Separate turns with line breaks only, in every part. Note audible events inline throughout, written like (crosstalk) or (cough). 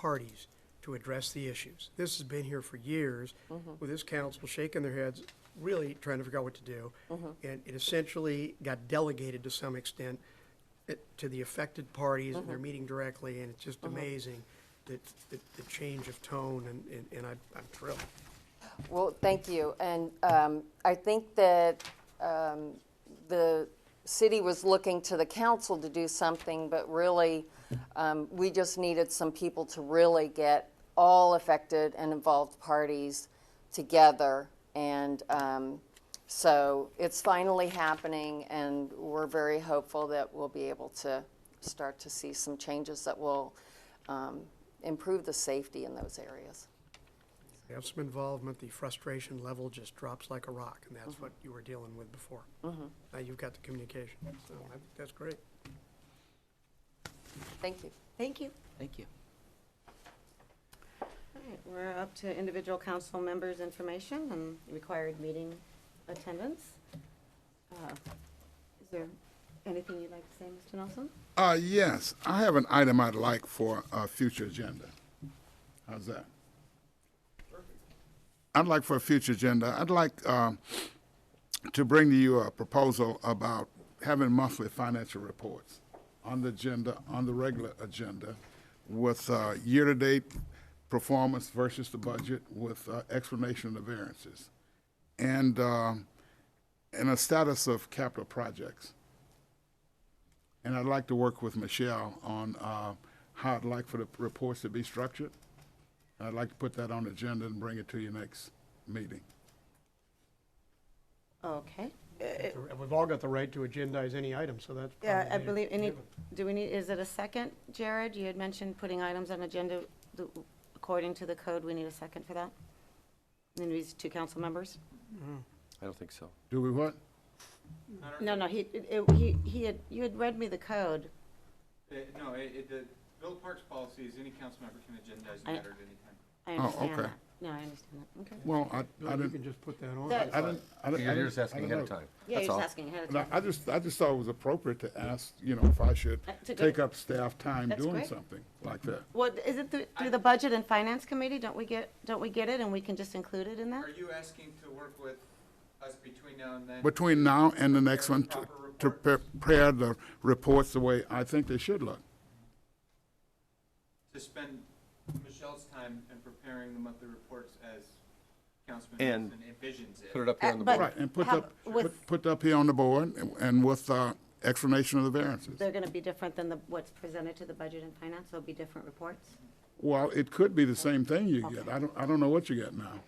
parties to address the issues. This has been here for years, with this council shaking their heads, really trying to figure out what to do. And it essentially got delegated to some extent it- to the affected parties, and they're meeting directly, and it's just amazing that, that the change of tone, and, and- and I'm I'm thrilled.
Well, thank you. And um, I think that um, the city was looking to the council to do something, but really, um, we just needed some people to really get all affected and involved parties together. And um, so it's finally happening, and we're very hopeful that we'll be able to start to see some changes that will um, improve the safety in those areas.
You have some involvement, the frustration level just drops like a rock, and that's what you were dealing with before. Now you've got the communication, so I think that's great.
Thank you.
Thank you.
Thank you.
All right, we're up to individual council members' information and required meeting attendance. Uh, Is there anything you'd like to say, Mr. Nelson?
Uh, yes, I have an item I'd like for a future agenda. How's that? I'd like for a future agenda, I'd like, um, to bring to you a proposal about having monthly financial reports on the agenda, on the regular agenda, with, uh, year-to-date performance versus the budget, with, uh, explanation of variances. And, um, and a status of capital projects. And I'd like to work with Michelle on uh, how I'd like for the reports to be structured. I'd like to put that on the agenda and bring it to your next meeting.
Okay. Uh,
And we've all got the right to agendize any item, so that's
Yeah, I
probably
believe, any,
given.
do we need, is it a second, Jared? You had mentioned putting items on agenda, the- according to the code, we need a second for that? And these two council members?
I don't think so.
Do we what?
No, no, he, it- he, he had, you had read me the code.
Uh, No, it, it, the Bill of Parks policy is any council member can agendize
I-
a matter at any time.
I
Oh,
understand
okay.
that. No, I understand that, okay.
Well, I, I
You can
didn't,
just put that on.
That-
I didn't, I didn't. I
You're
didn't-
just asking
I
ahead of
didn't know.
time.
Yeah, you're
That's
just
all.
asking ahead of
No,
time.
I just, I just thought it was appropriate to ask, you know, if I should
Uh, to go-
take up staff time
That's
doing
great.
something like that.
Well, is it through, through the Budget and Finance Committee? Don't we get, don't we get it and we can just include it in that?
Are you asking to work with us between now and then?
Between now and the next one, to- to prepare the reports the way I think they should look.
To spend Michelle's time in preparing the monthly reports as Councilman
And-
Nelson envisions it.
Put it up here
Uh,
on the
but-
board.
Right, and put
How-
up,
with-
put- put up here on the board and- and with uh, explanation of the variances.
They're gonna be different than the, what's presented to the Budget and Finance, there'll be different reports?
Well, it could be the same thing you get. I don't, I don't know what you get now.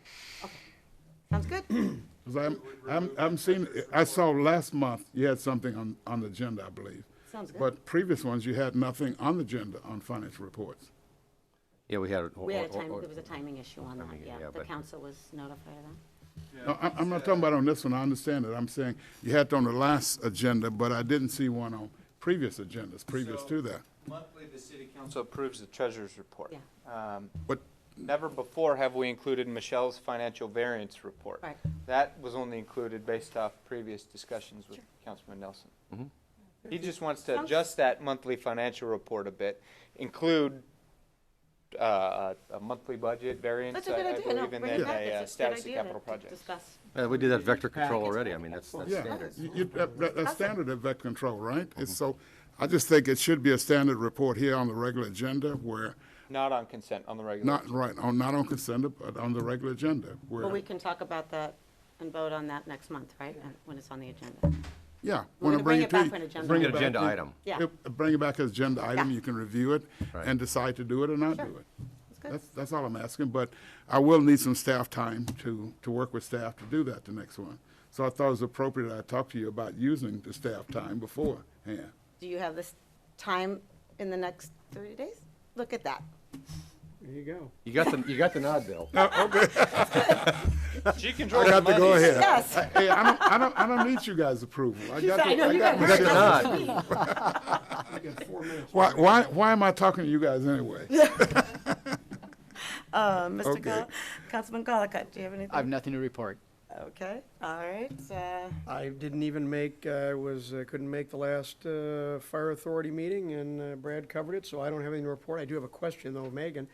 Sounds good?
'Cause I'm, I'm, I'm seeing, I saw last month, you had something on, on the agenda, I believe.
Sounds good.
But previous ones, you had nothing on the agenda on financial reports.
Yeah, we had.
We had a time, there was a timing issue on that, yeah. The council was notified of that.
No, I'm, I'm not talking about on this one, I understand it. I'm saying you had it on the last agenda, but I didn't see one on previous agendas, previous
So-
to that.
Monthly, the city council approves the treasurer's report. Um,
But
Never before have we included Michelle's financial variance report.
Right.
That was only included based off previous discussions with Councilman Nelson.
Mm-hmm.
He just wants to
Sounds-
adjust that monthly financial report a bit, include uh, a a monthly budget variance,
That's a
I
good
I
idea, no,
believe, and
bring it
then
back,
a
it's
uh,
a good
status of
idea to
capital
to
projects.
discuss.
We did that vector control
Package.
already. I mean, that's, that's
Yeah,
standard.
you- you- that- that- that's standard at vet control, right? It's so, I just think it should be a standard report here on the regular agenda where,
Not on consent, on the regular.
not right, on, not on consent, but on the regular agenda
But we
where,
can talk about that and vote on that next month, right, And when it's on the agenda?
yeah.
We're gonna
when I to
bring it
you-
back for an
bring it
agenda. Agenda
back-
item.
Yeah.
Yep, Bring it back as agenda item,
Yeah.
you can review it
Right.
and decide to do it or not
Sure.
do it.
That's good.
That's, that's all I'm asking, but I will need some staff time to, to work with staff to do that the next one. So I thought it was appropriate I talk to you about using the staff time beforehand.
Do you have this time in the next 30 days? Look at that.
There you go.
You got the, you got the nod, (laughs) Bill.
She
I
controls the
got to go
money.
ahead.
Yes.
Hey, I don't, I don't, I don't need you guys' approval. I got,
I know,
I
you
got
You got the
Michelle.
nod.
I got four minutes.
(laughs) Why, why, why am I talking to you guys anyway?
Uh, Mr.
Okay.
Gull- Um, Councilman Colacott, do you have anything?
I have nothing to report.
Okay, all right. uh,
I didn't even make, I was, uh, couldn't make the last uh, fire authority meeting, and uh, Brad covered it, so I don't have anything to report. I do have a question, though, of Megan.